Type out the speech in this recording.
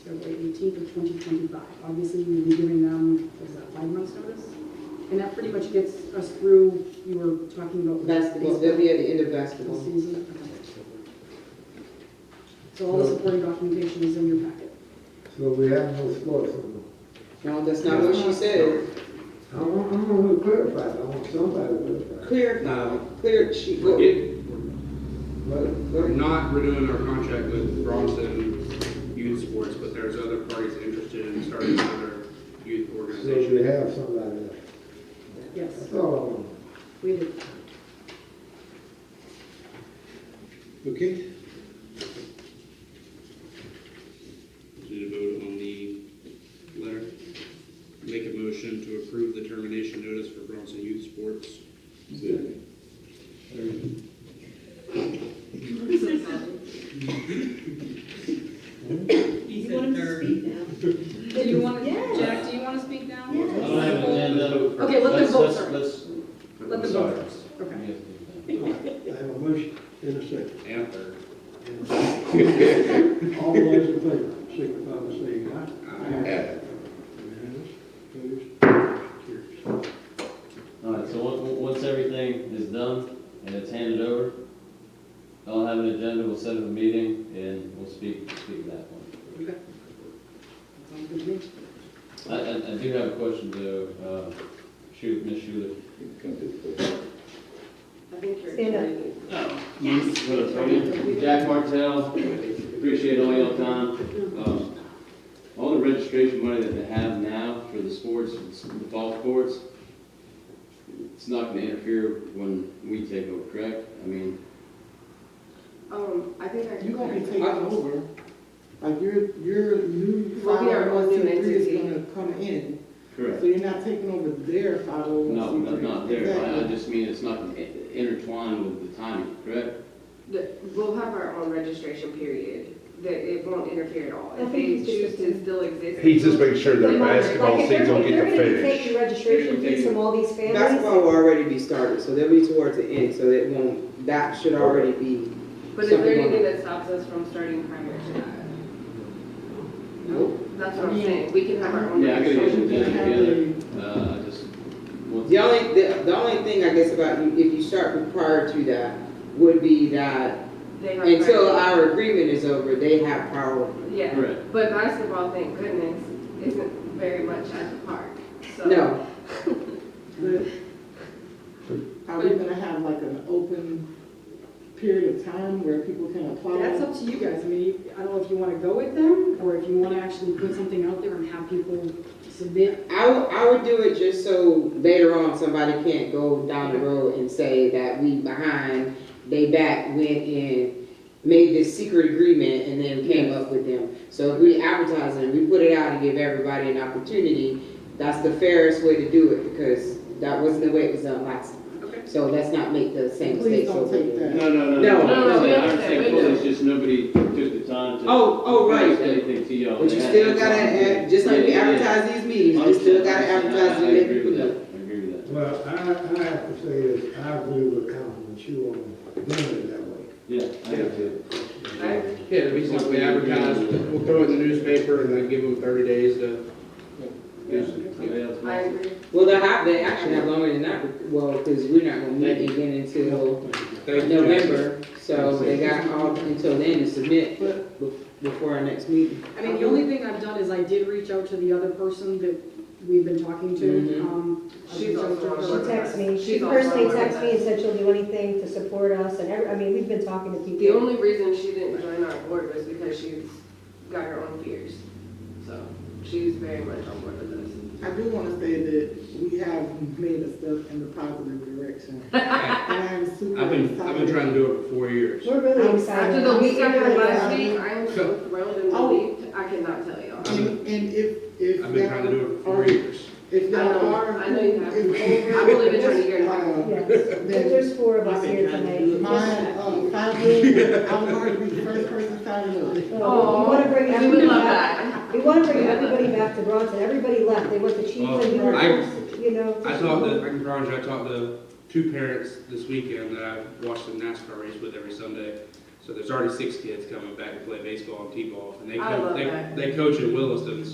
February 18th of 2025. Obviously, we will be giving them, what is that, five months notice? And that pretty much gets us through, you were talking about. Basketball, they'll be at the end of Baseball basketball. season. Okay. So all the supporting documentation is in your packet. So we have no sports on No, that's not what she said. the, I want, I want to clarify, I want somebody to clarify. Clear, No. clear, she, go, go It, But we're ahead. not renewing our contract with Bronson Youth Sports, but there's other parties interested in starting another youth so you organization. have somebody there. Yes, That's all I want. we did. Okay. Need to vote on the letter. Make a motion to approve the termination notice for Bronson Youth Sports. You want him to speak now? Do you want, Yes. Jack, do you want to speak now? Yes. I don't have an agenda. Okay, let them Let's- vote, let's- sorry. let's- Let them sorry. go first. Okay. I have a motion and a second. And third. All those in favor, signify by saying aye. Unanimous, opposed, motion All right, so on- on- once everything is done and it's handed over, I'll have an agenda, we'll set up a meeting, and we'll speak, speak to that one. Okay. Sounds good to me. I, I, I do have a question to, uh, shoot, Ms. Schuler. I think you're. Stand up. Jack Martell, appreciate all y'all time. Um, All the registration money that they have now for the sports, the golf courts, it's not gonna interfere when we take over, correct? I mean, Um, I think carries. You gonna be taking over, like your, your new We'll five be our oh own one new C three is entity. gonna come in, so correct? you're not taking over their five oh one C No, three. not, not there, oh I, I just mean it's not gonna i- intertwine with the timing, correct? The- We'll have our own registration period, that it won't interfere at all. I If they think he's just- choose to still exist. He's just making sure They that won't. basketball Like, if season they're- will if they're get the gonna be finish. taking registration fees from all these families, Basketball will already be started, so they'll be towards the end, so it won't, that should already be. But is there anything that stops us from starting prior to that? Nope. That's what I'm saying, we can have our own. Yeah, I could get registration. you together, uh, I just. want- The only, the, the only thing I guess about you, if you start prior to that, would be that until our agreement is over, they have power. Yeah, Correct, but basketball, thank goodness, isn't very much at the park, so. No, Are we gonna have like an open period of time where people can apply? That's up to you guys. I mean, you- I don't know if you want to go with them or if you want to actually put something out there and have people submit. I would, I would do it just so later on, somebody can't go down the road and say that we behind, they back went and made this secret agreement and then came up with them. So if we advertise it, we put it out and give everybody an opportunity, that's the fairest way to do it, because that wasn't the way it was done last time. Okay. So let's not make the same mistakes Please don't over take again. that. no, no, no. No, no, no, we I understand, understand, we fully, do. it's just nobody took the time to. Oh, oh, right. to Anything to y'all. But you They had still to- gotta, add- just like we Yeah, yeah. advertise these meetings, you still gotta advertise I to let agree people with that, know. I agree with that. Well, I, I have to say this, I agree with Councilman Chu on doing it that way. Yeah, I do too. Yeah, it'd be something we advertise, we'll throw it in the newspaper and then give them thirty days to. I agree. Well, they have, they actually have longer than that, well, because we're not gonna meet again until Thank you, Jack. November, so they got all until then to submit be- before our next meeting. I mean, the only thing I've done is I did reach out to the other person that we've been talking to. Mhm. Um, I She's reached out also to on her. she the texts me, she She's on personally board with texts me and said she'll do anything to support us, and every, I mean, we've been talking to The people. only reason she didn't join our board was because she's got her own fears, so she's very much on board with us. I do wanna say that we have made a step in the positive direction. And I'm super I've been, I've been trying to do it for four years. We're really excited. After the We week I really had are. last week, I am so thrilled and Oh. relieved, I cannot tell y'all. I've been, And and if, if. I've been trying to do it for four years. If I y'all know, are. I know you have. it's I've only been over, trying to get it out. uh, Yes, But there's four of us here tonight. My, uh, five million, I was already the first person signing up. Oh, We want to bring We would everybody love back, that. we want to bring everybody back to Bronson, everybody left, they went to Chiefs and we were Oh, I- forced, you know. I to- talked to, I can promise you, I talked to two parents this weekend that I watched the NASCAR race with every Sunday. So there's already six kids coming back to play baseball and T-ball, and they I co- love they, that. they coach in Williston,